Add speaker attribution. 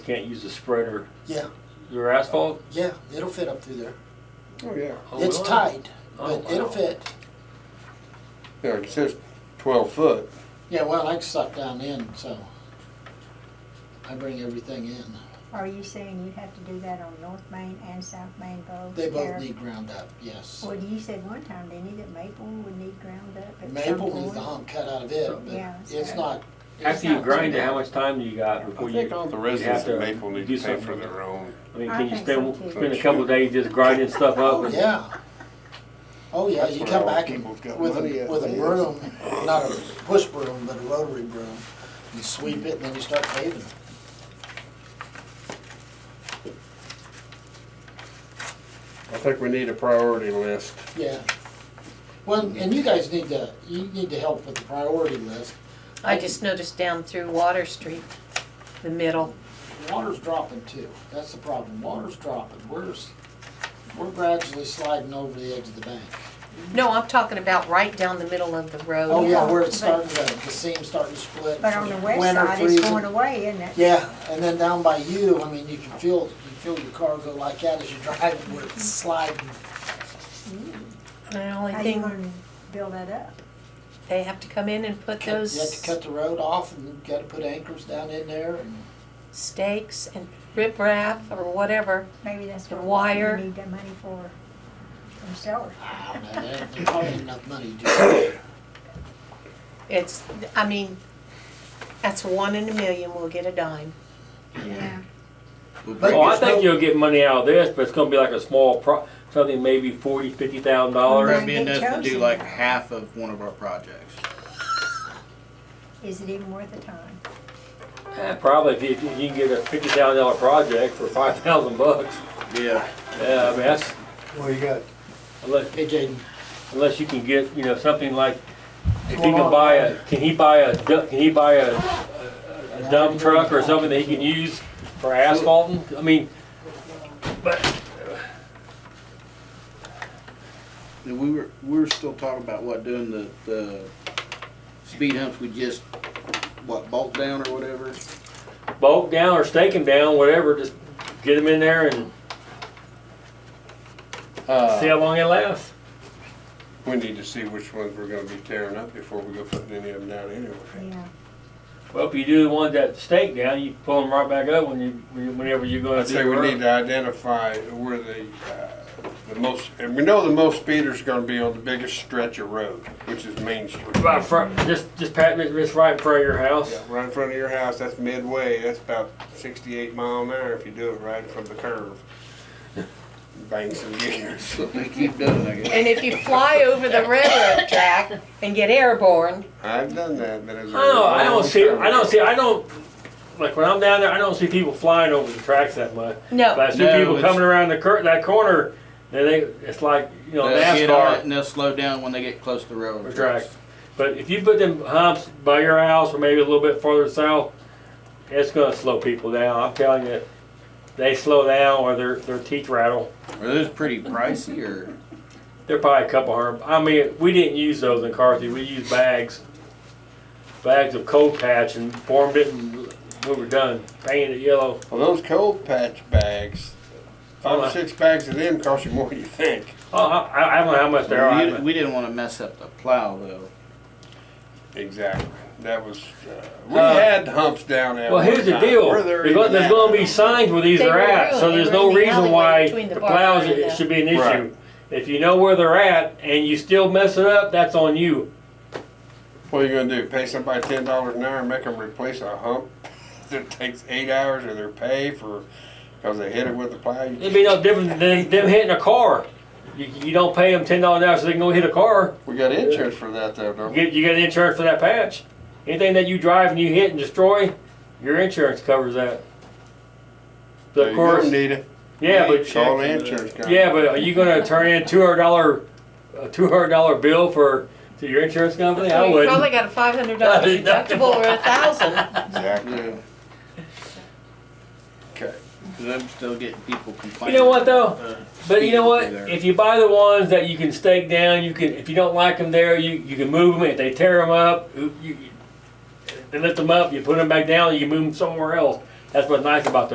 Speaker 1: Can't use a spreader.
Speaker 2: Yeah,
Speaker 1: Your asphalt?
Speaker 2: yeah, it'll fit up through there.
Speaker 3: Oh, yeah.
Speaker 1: Oh,
Speaker 2: It's
Speaker 1: really?
Speaker 2: tied,
Speaker 1: Oh,
Speaker 2: but it'll
Speaker 1: wow.
Speaker 2: fit.
Speaker 3: Yeah, it says twelve foot.
Speaker 2: Yeah, well, I suck down in, so I bring everything in.
Speaker 4: Are you saying you have to do that on North Main and South Main both?
Speaker 2: They
Speaker 4: Or-
Speaker 2: both need ground up, yes.
Speaker 4: Well, you said one time, didn't you, that Maple would need ground up at some
Speaker 2: Maple needs
Speaker 4: point?
Speaker 2: the hump cut out of it,
Speaker 4: Yeah,
Speaker 2: but it's
Speaker 4: so-
Speaker 2: not,
Speaker 1: After you grind it, how much time do you got before
Speaker 3: I
Speaker 1: you?
Speaker 3: think all the
Speaker 1: you
Speaker 3: residents
Speaker 1: have to
Speaker 3: of Maple need
Speaker 1: do
Speaker 3: to pay
Speaker 1: something
Speaker 3: for
Speaker 1: with it?
Speaker 3: their own.
Speaker 1: I mean,
Speaker 4: I
Speaker 1: can you
Speaker 4: think so,
Speaker 1: spend,
Speaker 4: too.
Speaker 1: spend a couple days just grinding stuff up?
Speaker 2: oh,
Speaker 1: and-
Speaker 2: yeah. Oh, yeah,
Speaker 3: That's
Speaker 2: you
Speaker 3: where
Speaker 2: come
Speaker 3: all
Speaker 2: back and
Speaker 3: people's got
Speaker 2: with
Speaker 3: money
Speaker 2: a,
Speaker 3: at
Speaker 2: with a
Speaker 3: is-
Speaker 2: broom, not a push broom, but a rotary broom. You sweep it and then you start paving.
Speaker 3: I think we need a priority list.
Speaker 2: Yeah. Well, and you guys need to, you need to help with the priority list.
Speaker 5: I just noticed down through Water Street, the middle,
Speaker 2: Water's dropping too. That's the problem. Water's dropping. We're, s- we're gradually sliding over the edge of the bank.
Speaker 5: no, I'm talking about right down the middle of the road.
Speaker 2: Oh, yeah, where
Speaker 4: but-
Speaker 2: it's starting to, the seam's starting to split.
Speaker 4: But on the west
Speaker 2: Winter
Speaker 4: side, it's going
Speaker 2: freezing.
Speaker 4: away, isn't it?
Speaker 2: Yeah, and then down by you, I mean, you can feel, you feel your car go like that as you drive, where
Speaker 4: Mm-hmm.
Speaker 2: it's sliding.
Speaker 5: The only
Speaker 4: How you
Speaker 5: thing,
Speaker 4: gonna build that up?
Speaker 5: they have to come in and put
Speaker 2: You have to
Speaker 5: those
Speaker 2: cut the road off and you've gotta put anchors down in there and,
Speaker 5: stakes and riprap or whatever.
Speaker 4: Maybe that's
Speaker 5: The
Speaker 4: what
Speaker 5: wire.
Speaker 4: we need that money for, from sellers.
Speaker 2: I don't know, there- there's probably enough money to do that.
Speaker 5: It's, I mean, that's one in a million, we'll get a dime.
Speaker 4: Yeah.
Speaker 2: But
Speaker 1: Oh, I
Speaker 2: there's
Speaker 1: think
Speaker 2: no-
Speaker 1: you'll get money out of this, but it's gonna be like a small pro, something maybe forty, fifty thousand dollars.
Speaker 4: Right.
Speaker 6: That'd be
Speaker 4: Might get
Speaker 6: enough to do
Speaker 4: chosen.
Speaker 6: like half of one of our projects.
Speaker 4: Is it even worth the time?
Speaker 1: Probably if you, if you can get a fifty thousand dollar project for five thousand bucks.
Speaker 6: Yeah.
Speaker 1: Yeah, I mean, that's,
Speaker 7: Well, you got,
Speaker 1: unless,
Speaker 2: Hey, Jaden,
Speaker 1: unless you can get, you know, something like, if he can buy
Speaker 3: um,
Speaker 1: a, can he buy a, du- can he buy a, a dump truck or something that he can use for asphalting? I mean,
Speaker 6: And we were, we were still talking about what, doing the, the speed humps we just, what, bolt down or whatever?
Speaker 1: bolt down or stake him down, whatever, just get him in there and see
Speaker 3: Uh,
Speaker 1: how long it lasts.
Speaker 3: we need to see which ones we're gonna be tearing up before we go putting any of them down anyway.
Speaker 4: Yeah.
Speaker 1: Well, if you do the ones that stake down, you pull them right back up when you, when you- whenever you're gonna
Speaker 3: I'd
Speaker 1: do.
Speaker 3: say we
Speaker 1: work.
Speaker 3: need to identify where the, uh, the most, and we know the most speeders are gonna be on the biggest stretch of road, which is Main Street.
Speaker 1: Right in front, just, just pat, just right in front of your house.
Speaker 3: Yeah, right in front of your house, that's midway, that's about sixty-eight mile an hour if you do it right from the curve. Bang some gears.
Speaker 6: So they keep doing, I guess.
Speaker 5: And if you fly over the railroad track and get airborne,
Speaker 3: I've done that, but it's.
Speaker 1: I don't know. I don't see. I don't see. I don't like when I'm down there. I don't see people flying over the tracks that much. But
Speaker 5: no,
Speaker 1: I see
Speaker 6: No,
Speaker 1: people
Speaker 6: it's-
Speaker 1: coming around the cur- that corner, and they it's like you know
Speaker 6: They'll get on it
Speaker 1: NASCAR
Speaker 6: and they'll slow down when they get close to the railroad
Speaker 1: track.
Speaker 6: tracks.
Speaker 1: But if you put them humps by your house or maybe a little bit farther south, it's gonna slow people down. I'm telling you, they slow down or their their teeth rattle.
Speaker 6: Are those pretty pricey or?
Speaker 1: They're probably a couple hundred. I mean, we didn't use those in Carthy. We used bags, bags of cold patch, and formed it, and we were done painted it yellow.
Speaker 3: Well, those cold patch bags, five or six bags of them cost you more than you think.
Speaker 1: Oh, I, I don't know how much they
Speaker 6: We
Speaker 1: are.
Speaker 6: didn't- we didn't wanna mess up the plow though.
Speaker 3: Exactly. That was, uh, we
Speaker 1: Uh,
Speaker 3: had humps down there.
Speaker 1: Well, here's the deal. There's gonna, there's gonna be signs where these
Speaker 5: They
Speaker 1: are
Speaker 5: were
Speaker 1: at, so
Speaker 5: ruined.
Speaker 1: there's
Speaker 5: They were
Speaker 1: no
Speaker 5: in the
Speaker 1: reason
Speaker 5: alleyway
Speaker 1: why
Speaker 5: between
Speaker 1: the
Speaker 5: the bar
Speaker 1: plows,
Speaker 5: and
Speaker 1: it
Speaker 5: the-
Speaker 1: should be an
Speaker 3: Right.
Speaker 1: issue. If you know where they're at and you still mess it up, that's on you.
Speaker 3: What are you gonna do? Pay somebody ten dollars an hour and make them replace a hump that takes eight hours of their pay for, cause they hit it with the plow? You
Speaker 1: It'd be no different than them hitting a car. You, you don't pay them ten dollars an hour so they can go hit a car.
Speaker 3: We got insurance for that though,
Speaker 1: You
Speaker 3: don't we?
Speaker 1: get, you got insurance for that patch. Anything that you drive and you hit and destroy, your insurance covers that. But
Speaker 3: There
Speaker 1: of
Speaker 3: you go,
Speaker 1: course,
Speaker 3: Nita.
Speaker 1: yeah, but
Speaker 3: Call the insurance company.
Speaker 1: Yeah, but are you gonna turn in two hundred dollar, a two hundred dollar bill for, to your insurance company? I
Speaker 5: you probably
Speaker 1: wouldn't.
Speaker 5: got a five hundred dollar deductible or a thousand.
Speaker 3: Exactly.
Speaker 6: Yeah.
Speaker 3: Okay.
Speaker 6: Cause I'm still getting people
Speaker 1: You
Speaker 6: complaining.
Speaker 1: know what though?
Speaker 6: uh,
Speaker 1: But you know what?
Speaker 6: speeding through there.
Speaker 1: If you buy the ones that you can stake down, you can, if you don't like them there, you, you can move them. If they tear them up, you, you- they lift them up, you put them back down, you move them somewhere else. That's what's nice about